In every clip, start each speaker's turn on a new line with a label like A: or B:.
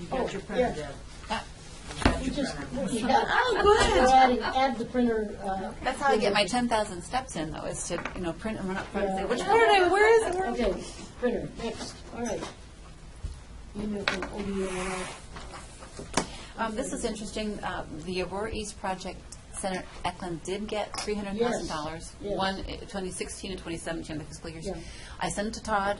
A: You got your printer, Deb?
B: You Oh, Uh, just, you
A: Oh, good.
B: add, and add the printer, uh,
C: That's how I get my ten thousand steps in, though, is to, you know, print and run up front and say,
B: Yeah.
C: which one did I, where is it? Where is it?"
B: okay, printer, next, all right. Email from ODNR.
C: Um, this is interesting, uh, the Aurora East Project, Senator Eklund did get three hundred thousand dollars.
B: yes.
C: One, uh, twenty sixteen and twenty seventeen, the fiscal years.
B: Yeah.
C: I sent it to Todd,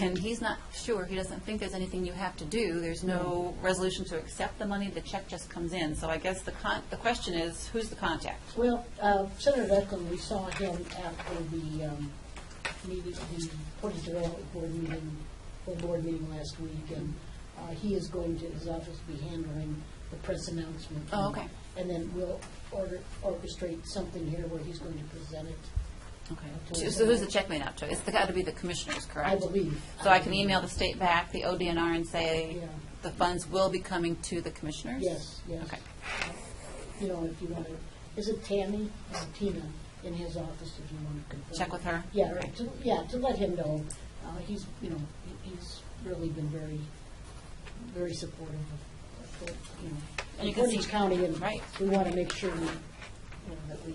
C: and he's not sure, he doesn't think there's anything you have to do, there's no resolution to accept the money, the check just comes in. So I guess the con, the question is, who's the contact?
B: Well, uh, Senator Eklund, we saw him after the um, meeting, the Portage Development Board meeting, or board meeting last week, and uh, he is going to, his office will be handling the press announcement.
C: Oh, okay.
B: And then we'll order, orchestrate something here where he's going to present it,
C: Okay. So who's the check made out to? It's got to be the commissioners, correct?
B: I believe.
C: So I can email the state back, the ODNR, and say,
B: Yeah.
C: the funds will be coming to the commissioners?
B: Yes, yes.
C: Okay.
B: You know, if you want to, is it Tammy or Tina in his office if you want to confirm?
C: Check with her?
B: Yeah, right, to, yeah, to let him know, uh, he's, you know, he- he's really been very, very supportive of, of, the, you know,
C: And you
B: of
C: can
B: Portage
C: see-
B: County, and
C: right.
B: we want to make sure we, you know, that we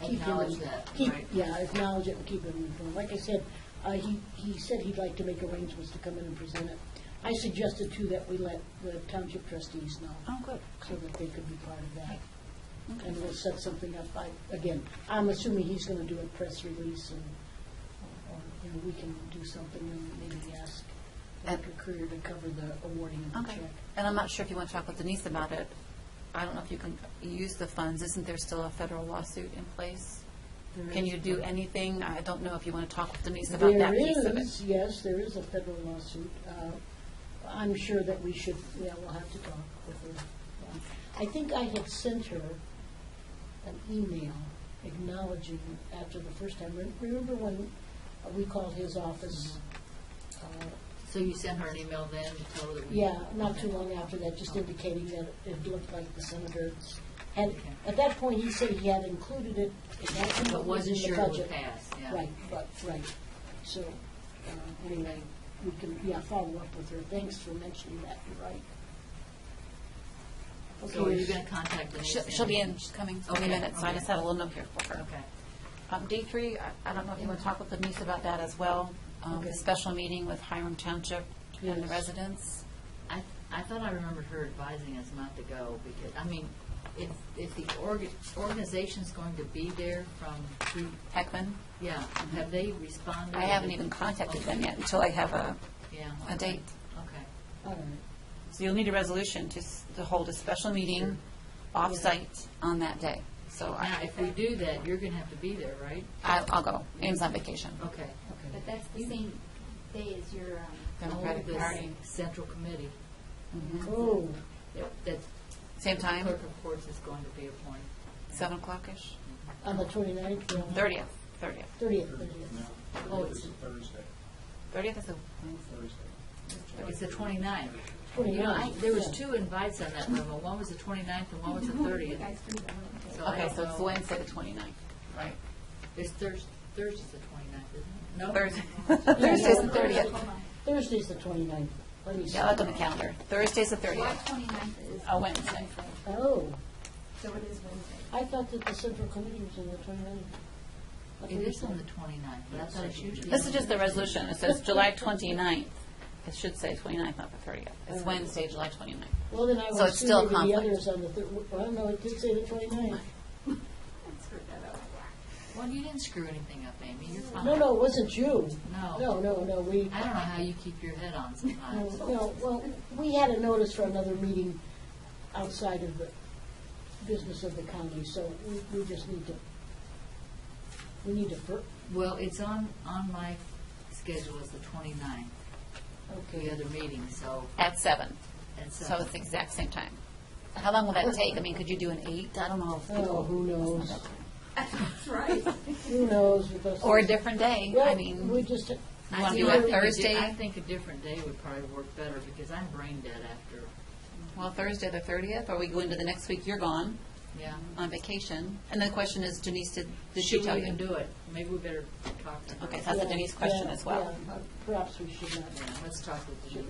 B: keep him.
A: Acknowledge that,
B: keep-
A: right.
B: Yeah, acknowledge it and keep him informed. Like I said, uh, he, he said he'd like to make arrangements to come in and present it. I suggested too that we let the township trustees know,
C: Oh, good.
B: so that they could be part of that. And we'll set something up, I, again, I'm assuming he's gonna do a press release and, or, you know, we can do something and maybe ask Dr. Courier to cover the awarding of the
C: Okay.
B: check.
C: And I'm not sure if you want to talk with Denise about it. I don't know if you can use the funds. Isn't there still a federal lawsuit in place?
B: There
C: Can
B: is-
C: you do anything? I don't know if you want to talk with Denise about that piece of
B: There
C: it.
B: is, yes, there is a federal lawsuit. Uh, I'm sure that we should, yeah, we'll have to talk with her. Yeah. I think I had sent her an email acknowledging after the first time. Re- Remember when uh, we called his office? uh,
A: So you sent her an email then to tell her that we...
B: Yeah, not too long after that, just indicating that it looked like the senator had, at that point, he said he had included it. exactly what
A: But
B: was
A: wasn't
B: in the
A: sure it would
B: budget.
A: pass, yeah.
B: Right, but, right. So, uh, anyway, we can, yeah, follow up with her. Thanks for mentioning that, you're right.
A: So are you
B: Okay.
A: going to contact Denise?
C: She'll-
A: then?
C: She'll be in, she's coming in a
A: Okay,
C: minute, so I
A: okay.
C: just have a little note here for her.
A: Okay.
C: Um, D3, I- I don't know if you want to talk with Denise about that as well. Um, The
B: Okay.
C: special meeting with Hiram Township and the
B: Yes.
C: residents.
A: I, I thought I remembered her advising us not to go because, I mean, if, if the org- organization's going to be there from, who-
C: Heckman,
A: yeah, have they responded?
C: I haven't even contacted them yet until I have a,
A: Yeah.
C: a date.
A: Okay.
B: All right.
C: So you'll need a resolution to, s- to hold a special meeting off-site on that day. So
A: Now,
C: I,
A: if we do that, you're going to have to be there, right?
C: I- I'll go. Ames on vacation.
A: Okay.
B: Okay.
D: But that's the same day as your, um,
C: Democratic
A: Oh, the
C: Party.
A: Central Committee,
B: Oh,
A: that- that
C: Same time,
A: clerk of courts is going to be appointed.
C: seven o'clock-ish?
B: on the 29th? yeah.
C: Thirtieth, thirtieth.
B: 30th, 30th.
A: Oh,
E: No,
A: it's-
E: it's Thursday,
C: Thirtieth is a,
E: Thursday.
A: It's the 29th. You know, I,
B: 29th.
A: there was
B: Oh, yeah.
A: two invites on that memo. One was the 29th and one was the 30th.
D: guys do that one.
A: So I
C: okay,
A: don't
C: so it's
A: know.
C: Wednesday, the twenty-ninth.
A: Right. It's Thursday, Thursday's the 29th, isn't it? No?
C: Thursday. Thursday's the
B: Yeah.
C: thirtieth.
B: Thursday's the 29th. Let me see.
C: Yeah, I'll look on the calendar. Thursday's the
D: July
C: thirtieth.
D: 29th is.
C: A Wednesday.
B: Oh,
D: So it is Wednesday.
B: I thought that the central committee was on the 29th. What
A: It
B: did you
A: is
B: say?
A: on the 29th, but I thought it's usually.
C: This is just the resolution. It says July twenty-ninth. It should say twenty-ninth, not the thirtieth. It's Wednesday, July twenty-ninth.
B: Well, then I
C: So
B: would
C: it's still a
B: assume maybe the others
C: conflict.
B: on the third, well, no, it did say the 29th.
A: Oh
D: I screwed that up.
A: Well, you didn't screw anything up, Amy, you're fine.
B: No, no, it wasn't you.
A: No.
B: No, no, no, we,
A: I don't know how you keep your head on
B: no,
A: sometimes.
B: no, Um, well, we had a notice for another meeting outside of the business of the county, so we, we just need to, we need to, fir-
A: Well, it's on, on my schedule as the 29th, the
B: okay.
A: other meeting, so,
C: At seven.
A: and so.
C: So it's the exact same time. How long will that take? I mean, could you do an eight? I don't know. if
B: Oh,
C: people-
B: who knows?
D: That's right.
B: Who knows with us?
C: Or a different day. I mean,
B: Well, we just,
A: I
C: You wanna
A: think- I think a
C: do it
A: di-
C: Thursday?
A: I think a different day would probably work better, because I'm brain dead after,
C: well, Thursday the thirtieth, or we go into the next week, you're gone
A: yeah.
C: on vacation. And the question is, Denise, did, did she
A: Should
C: tell
A: we
C: you?
A: even do it? Maybe we better talk to her.
C: Okay, so that's a
B: Yeah,
C: Denise question
B: yeah,
C: as well.
B: yeah, Perhaps we should not.
A: Yeah, Let's talk with Denise.